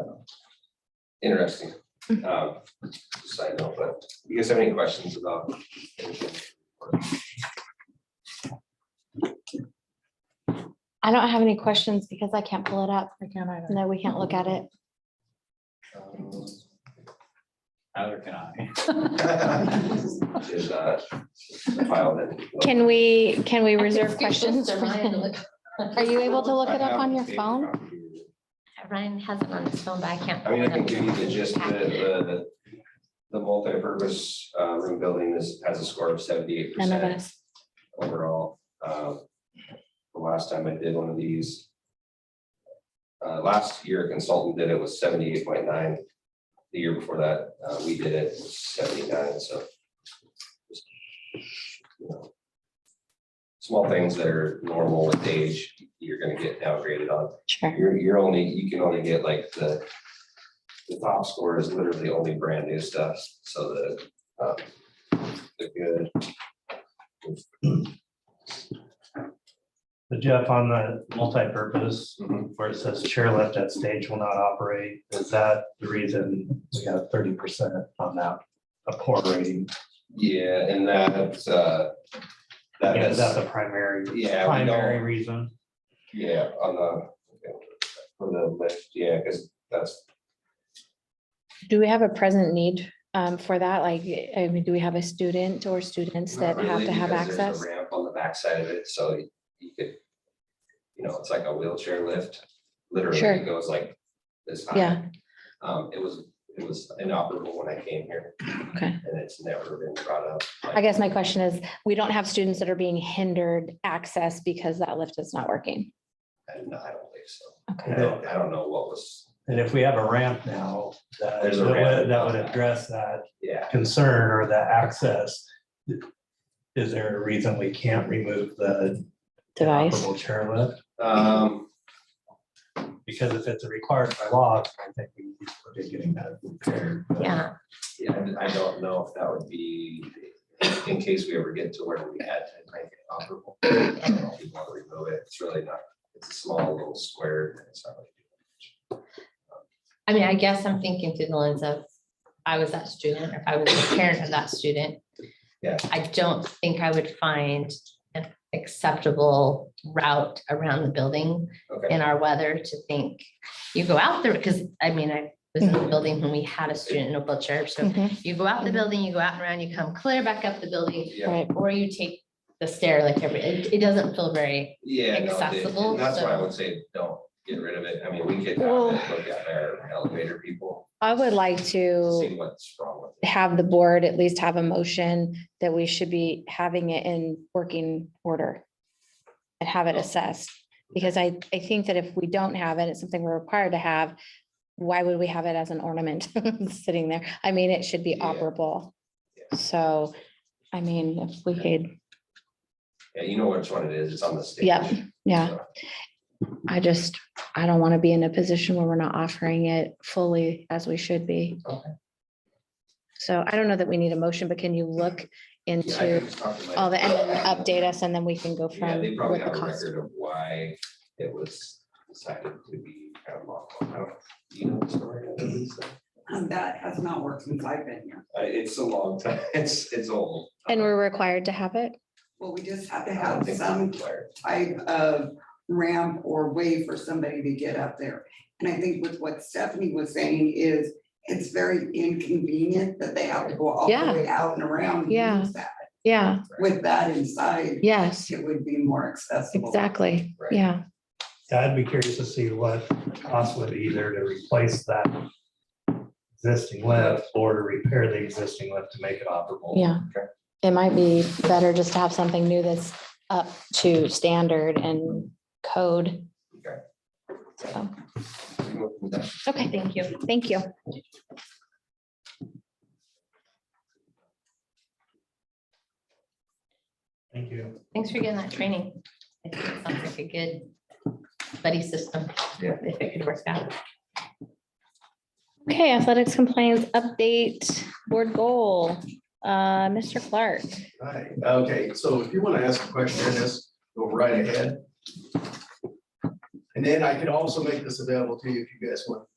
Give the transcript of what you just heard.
uh, interesting. Mm. Um, Side note, but you guys have any questions about? anything? I don't have any questions because I can't pull it up. I can't either. No, we can't look at it. Um, Neither can I. Is uh, the file that. Can we, can we I can reserve scoot this questions? to for- Ryan to look. Are you able to look I it up have on the your paper phone? copy. Ryan has it on his phone, but I can't. I mean, I pull it can give up. you the gist, the, the, the multi-purpose uh, room building is, has a score of seventy-eight None of percent us. overall. Um, The last time I did one of these. Uh, last year a consultant did it was seventy-eight point nine. The year before that, uh, we did it was seventy-nine, so. just, you know, Small things that are normal with age, you're gonna get downgraded on. Sure. You're, you're only, you can only get like the, the top score is literally only brand new stuff, so the, um, the good. But Jeff, on the multi-purpose, Mhm. where it says chair lift at stage will not operate, is that the reason we got thirty percent on that? A poor rating, Yeah, and that, uh, that Yeah, is, is that the primary, yeah, we primary don't, reason? yeah, on the, for the list, yeah, because that's, Do we have a present need um, for that? Like, I mean, do we have a student or students Not that have really, to have because there's a access? Ramp on the backside of it, so you- you could, you know, it's like a wheelchair lift, literally Sure. it goes like this high. Yeah. Um, it was, it was inoperable when I came here. Okay. And it's never been brought up. I guess my question is, we don't have students that are being hindered access because that lift is not working. And I don't believe so. Okay. And I don't, I don't know what was, And if we have a ramp now, that, that There's a ramp. would- that would address that yeah, concern or that access. Is there a reason we can't remove the Device. operable chair lift? um, Because if it's required by law, I think we need to look at getting that repaired. but- Yeah, yeah, I I don't know if that would be, in case we ever get to where we had to make it operable. I don't know if we want to remove it, it's really not, it's a small little square, and it's not like. I mean, I guess I'm thinking through the lens of, I was that student, if I was a parent of that student. Yeah. I don't think I would find an acceptable route around the building Okay. in our weather to think, you go out there, because I mean, I was in the building when we had a student in a wheelchair, so Mhm, you go out the building, you go out and around, you come clear back up the building, Yeah, Right. or you take the stair like every, it, it doesn't feel very, yeah. no, it- Accessible, and That's why I so- would say, don't get rid of it, I mean, we could have Well- it look at our elevator people, I would like to. see what's wrong with it. have the board at least have a motion that we should be having it in working order and have it Oh. assessed, because I, I think that if we don't have it, it's something we're required to have, why would we have it as an ornament sitting there? I mean, it should be Yeah. operable. Yeah. So, I mean, if we could, Yeah, you know which one it is, it's on the stage. Yep, yeah, So, I just, I don't want to be in a position where we're not offering it fully as we should be. Okay. So I don't know that we need a motion, but can you look into? yeah, I can just talk to my- all the, and then update us and then we can go Yeah, from they probably with the have a cost. record of why it was decided to be kind of off. I don't, you know, the story. of it, so. Um, That has not worked since I've been here. Uh, it's a long time, it's, it's old. And we're required to have it? Well, we just have to I don't have think some it's required. type of ramp or way for somebody to get up there. And I think with what Stephanie was saying is, it's very inconvenient that they have to go all Yeah. the way out and around. to Yeah. use that. Yeah, With that inside, yes, it would be more accessible. exactly. Right. Yeah, Yeah, I'd be curious to see what the cost would be either to replace that existing lift or to repair the existing lift to make it operable. yeah. Okay. It might be better just to have something new that's up to standard and code. We can look into that. Okay, thank you. thank you. Thank you. Thanks for getting that training. I think it Sounds like a good buddy system. Yeah. If it could work out. Okay, athletics compliance update, board goal, uh, Mr. Clark. Hi, okay, so if you want to ask a question on this, go right ahead. And then I can also make this available to you if you guys want